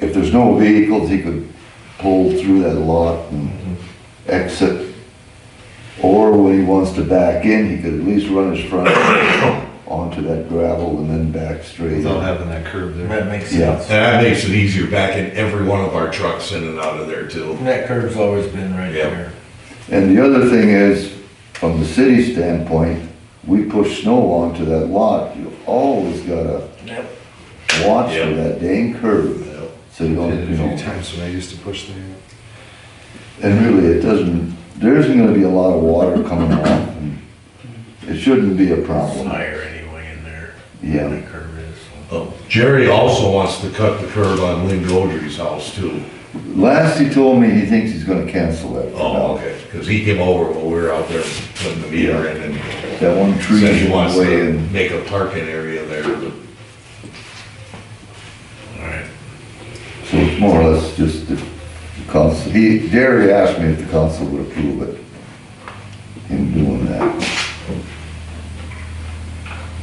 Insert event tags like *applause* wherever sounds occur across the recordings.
if there's no vehicles, he could pull through that lot and exit. Or when he wants to back in, he could at least run his front *coughs* onto that gravel and then back straight. without having that curb there. That makes Yeah. sense. And that makes it easier backing every one of our trucks in and out of there too. And that curve's always been right Yeah. there. And the other thing is, from the city standpoint, we push snow onto that lot, you always gotta Yep. watch Yeah. for that dang curve. Uh, So you Did don't, it you a few know, times when I used to push there. and really, it doesn't, there isn't gonna be a lot of water coming off. and It shouldn't be a It's problem, higher anyway in there. Yeah. That curve is. so. Oh, Jerry also wants to cut the curb on Lynn Goldry's house too. Last he told me, he thinks he's gonna cancel it. Oh, okay, because he came over while we were out there putting the meter in and That one tree said he in wants the way to and make a parking area there, but Alright. so it's more or less just the the council. He, Jerry asked me if the council would approve it, him doing that.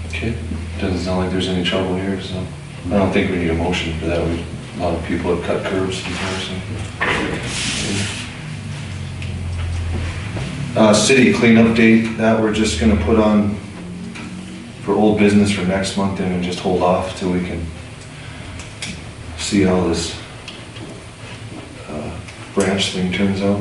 Okay. Doesn't sound like there's any trouble here, so I don't think we need a motion for that. We, a lot of people have cut curbs in person. Uh, city cleanup date, that we're just gonna put on for old business for next month and then just hold off till we can see how this uh, branch thing turns out.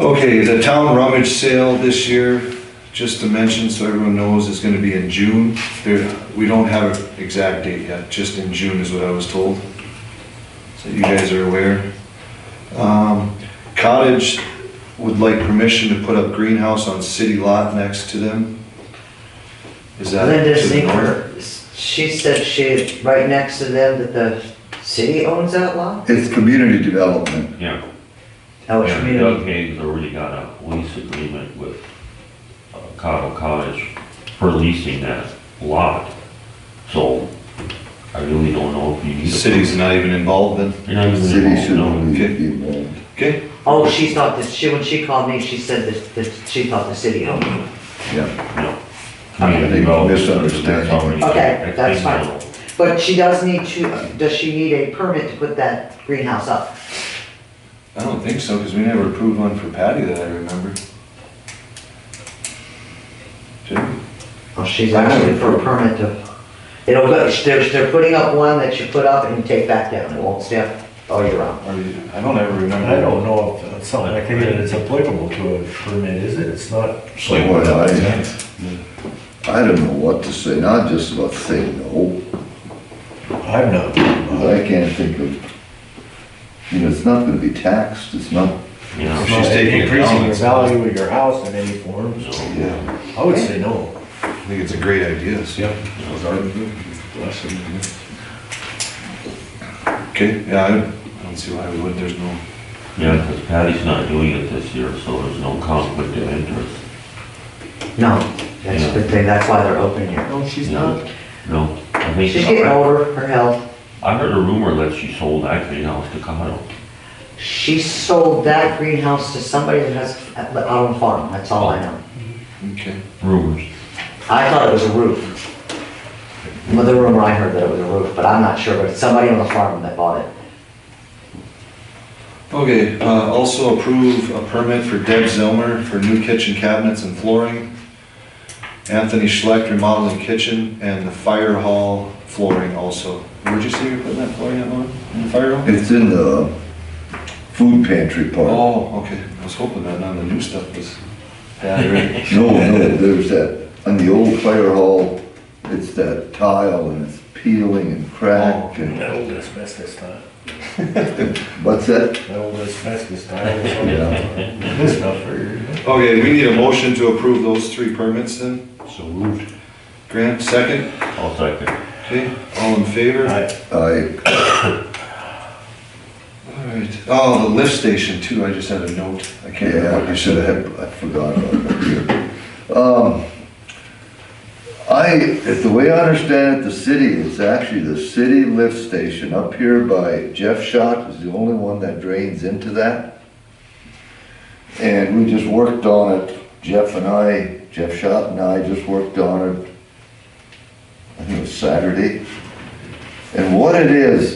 Okay, the town rummage sale this year, just to mention, so everyone knows, is gonna be in June. There, we don't have an exact date yet, just in June is what I was told. So you guys are aware. Um, Cottage would like permission to put up greenhouse on city lot next to them. Is that? Linda to the north? Singer, she said she, right next to them, that the city owns that lot? It's community development. Yeah, Oh, it's and Doug community. Hayes already got a lease agreement with uh, Cottle Cottage for leasing that lot. So I really don't know if you need. a- City's not even involved then? You're not even City Oh, involved, should no. be okay. involved. Okay, Oh, she's not, the- she, when she called me, she said that, that she thought the city owned it. Yeah, No. I think No, misunderstanding. that's already- Okay, that's I fine. think so. But she does need to, does she need a permit to put that greenhouse up? I don't think so, because we never approved one for Patty that I remember. Did we? Oh, she's asking for a permit to, it'll go, they're, they're putting up one that you put up and you take back down, it won't stay up all year round. Or you- I don't ever remember. I don't know if it's something like that is applicable to a permit, is it? It's not, it's like. Boy, I- I don't know what to say, not just about saying no, I'm not. 'cause I can't think of, you know, it's not gonna be taxed, it's not, Yeah, She's taking it Increasing down. the value of your house in any form, so yeah. I would say no. I think it's a great idea, so. Yep. Okay, yeah, I I don't see why we would, there's no, yeah, because Patty's not doing it this year, so there's no conflict of interest. No, that's a good thing, that's why they're open here. No, she's not. No, I think. She's getting older, her health. I heard a rumor that she sold that greenhouse to Cottle. She sold that greenhouse to somebody that has, out on the farm, that's all I know. okay. Rumors. I thought it was a roof. Well, the rumor I heard that it was a roof, but I'm not sure, but it's somebody on the farm that bought it. Okay, uh, also approve a permit for Deb Zilmer for new kitchen cabinets and flooring, Anthony Schleck remodeling kitchen, and the fire hall flooring also. Where'd you say you're putting that flooring on, in the fire hall? It's in the food pantry part. Oh, okay, I was hoping that none of the new stuff was bad already. No, no, there's that, on the old fire hall, it's that tile and it's peeling and cracked and, That old asbestos tile, what's that? that old asbestos *laughs* tile. Yeah. This stuff for, Okay, we need a motion to approve those three permits then. So moved. Grant, second, I'll second. okay, all in favor? I, I, All right, oh, the lift station too, I just had a note, I can't remember Yeah, what I you should said. have, I forgot about that here. Um, I, if the way I understand it, the city, it's actually the city lift station up here by Jeff Shot is the only one that drains into that. And we just worked on it, Jeff and I, Jeff Shot and I just worked on it, I think it was Saturday. And what it is,